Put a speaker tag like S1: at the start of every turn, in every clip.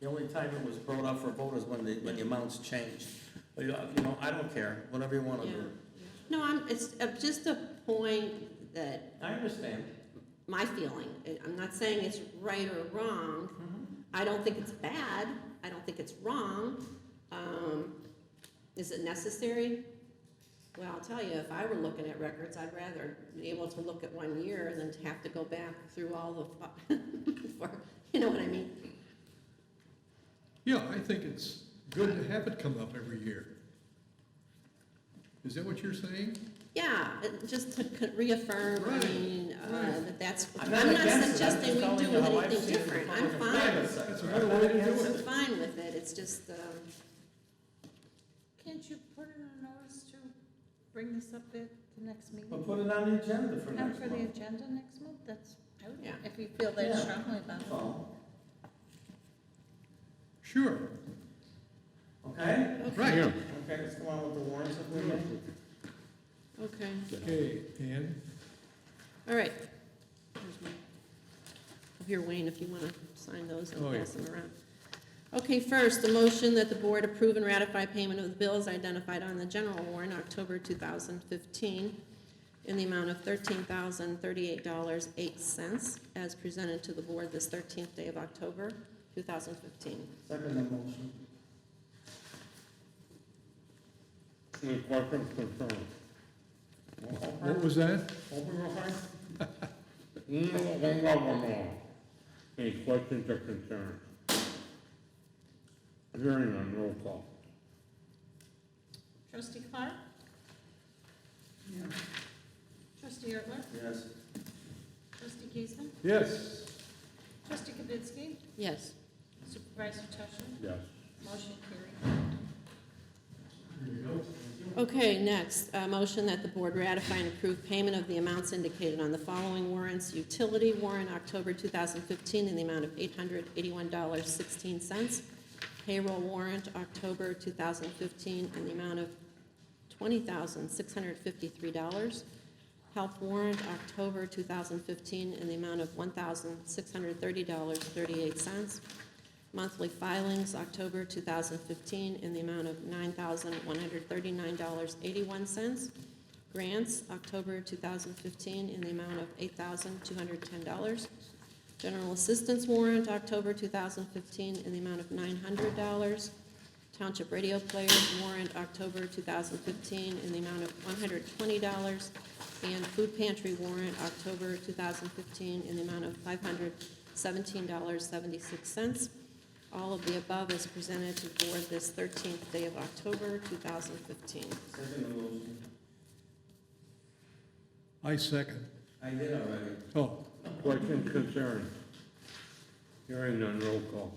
S1: The only time it was brought up for vote is when the, when the amounts changed. But, you know, you know, I don't care, whatever you want to
S2: Yeah.
S1: do.
S2: No, I'm, it's uh, just a point that
S1: I understand.
S2: my feeling, I- I'm not saying it's right or wrong.
S1: Mm-hmm.
S2: I don't think it's bad. I don't think it's wrong. Um, is it necessary? Well, I'll tell you, if I were looking at records, I'd rather be able to look at one year than to have to go back through all the, fu- for, you know what I mean?
S3: Yeah, I think it's good to have it come up every year. Is that what you're saying?
S2: Yeah, it- just to c- reaffirm, I
S3: Right,
S2: mean, uh,
S3: right.
S2: that that's, I'm
S1: I'm not
S2: not
S1: against it, I'm just
S2: suggesting we
S1: telling
S2: do
S1: you how I've
S2: anything
S1: seen it in
S2: different.
S1: the
S2: I'm
S1: public
S2: fine.
S1: private sector.
S3: That's another way to do
S2: I'm
S3: it.
S2: fine with it, it's just, um,
S4: Can't you put in a notice to bring this up at the next meeting?
S1: But put it on the agenda for
S4: Not
S1: next
S4: for the
S1: month.
S4: agenda next month, that's, I would,
S2: Yeah.
S4: if you feel that
S1: Yeah.
S4: strongly about
S1: That's
S4: it.
S1: all.
S3: Sure,
S1: Okay?
S3: right.
S1: Okay, let's go on with the warrants if we may.
S2: okay,
S3: Okay, Ann,
S2: all right. Here's my- oh, Here, Wayne, if you want to sign those and
S3: Oh, yeah.
S2: pass them around. Okay, first, the motion that the board approve and ratify payment of the bills identified on the general warrant, October 2015, in the amount of $13,038.08, as presented to the board this 13th day of October, 2015.
S1: Second the motion.
S5: Incorporated confirmed.
S3: what was that?
S1: Open real hard?
S5: No, one of them all. Any questions or concerns? Hearing on roll call.
S4: Trustee Clark? Trustee Ertler?
S1: Yes.
S4: Trustee Giesman?
S3: Yes,
S4: Trustee Kibitsky?
S2: Yes.
S4: Supervisor Tusher?
S5: Yes.
S4: Motion carried.
S2: Okay, next, a motion that the board ratify and approve payment of the amounts indicated on the following warrants. Utility warrant, October 2015, in the amount of $881.16. Payroll warrant, October 2015, in the amount of $20,653. Health warrant, October 2015, in the amount of $1,630.38. Monthly filings, October 2015, in the amount of $9,139.81. Grants, October 2015, in the amount of $8,210. General assistance warrant, October 2015, in the amount of $900. Township radio players warrant, October 2015, in the amount of $120. And food pantry warrant, October 2015, in the amount of $517.76. All of the above is presented to the board this 13th day of October, 2015.
S1: Second the motion.
S3: I second.
S1: I did already.
S3: Oh,
S5: Questions, concerns? Hearing on roll call.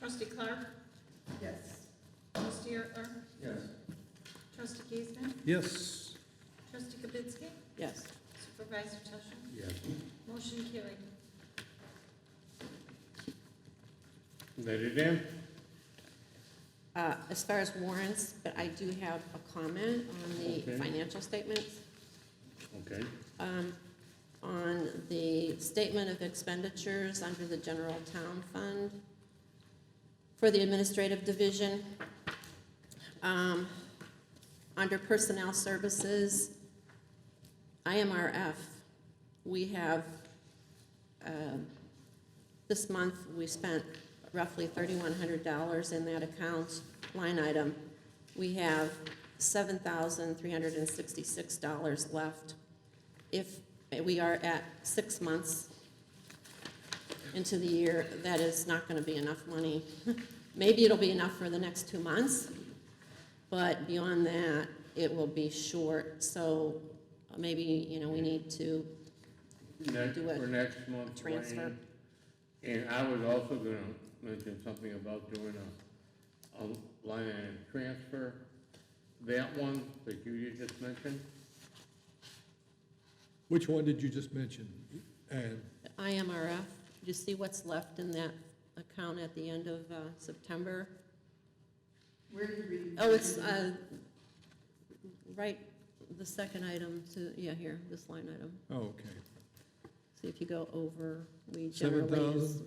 S4: Trustee Clark?
S6: Yes.
S4: Trustee Ertler?
S1: Yes.
S4: Trustee Giesman?
S3: yes,
S4: Trustee Kibitsky?
S2: Yes.
S4: Supervisor Tusher?
S5: Yes.
S4: Motion carried.
S5: Let it in?
S2: Uh, As far as warrants, but I do have a comment on the
S5: Okay.
S2: financial statements.
S5: Okay.
S2: Um, On the statement of expenditures under the general town fund for the administrative division. Um, Under personnel services, IMRF, we have, um, this month, we spent roughly thirty-one hundred dollars in that account line item. We have seven thousand three hundred and sixty-six dollars left. If we are at six months into the year, that is not gonna be enough money. Maybe it'll be enough for the next two months, but beyond that, it will be short. So maybe, you know, we need to,
S5: Next,
S2: Do a-
S5: for next month,
S2: transfer.
S5: Wayne. And I was also gonna mention something about doing a, a line item transfer. That one that you just mentioned,
S3: which one did you just mention? Ann,
S2: IMRF, you see what's left in that account at the end of uh, September?
S6: Where do you read?
S2: Oh, it's, uh, right, the second item to, yeah, here, this line item.
S3: oh, okay.
S2: See if you go over, we
S3: Seven
S2: generally
S3: thousand?
S2: is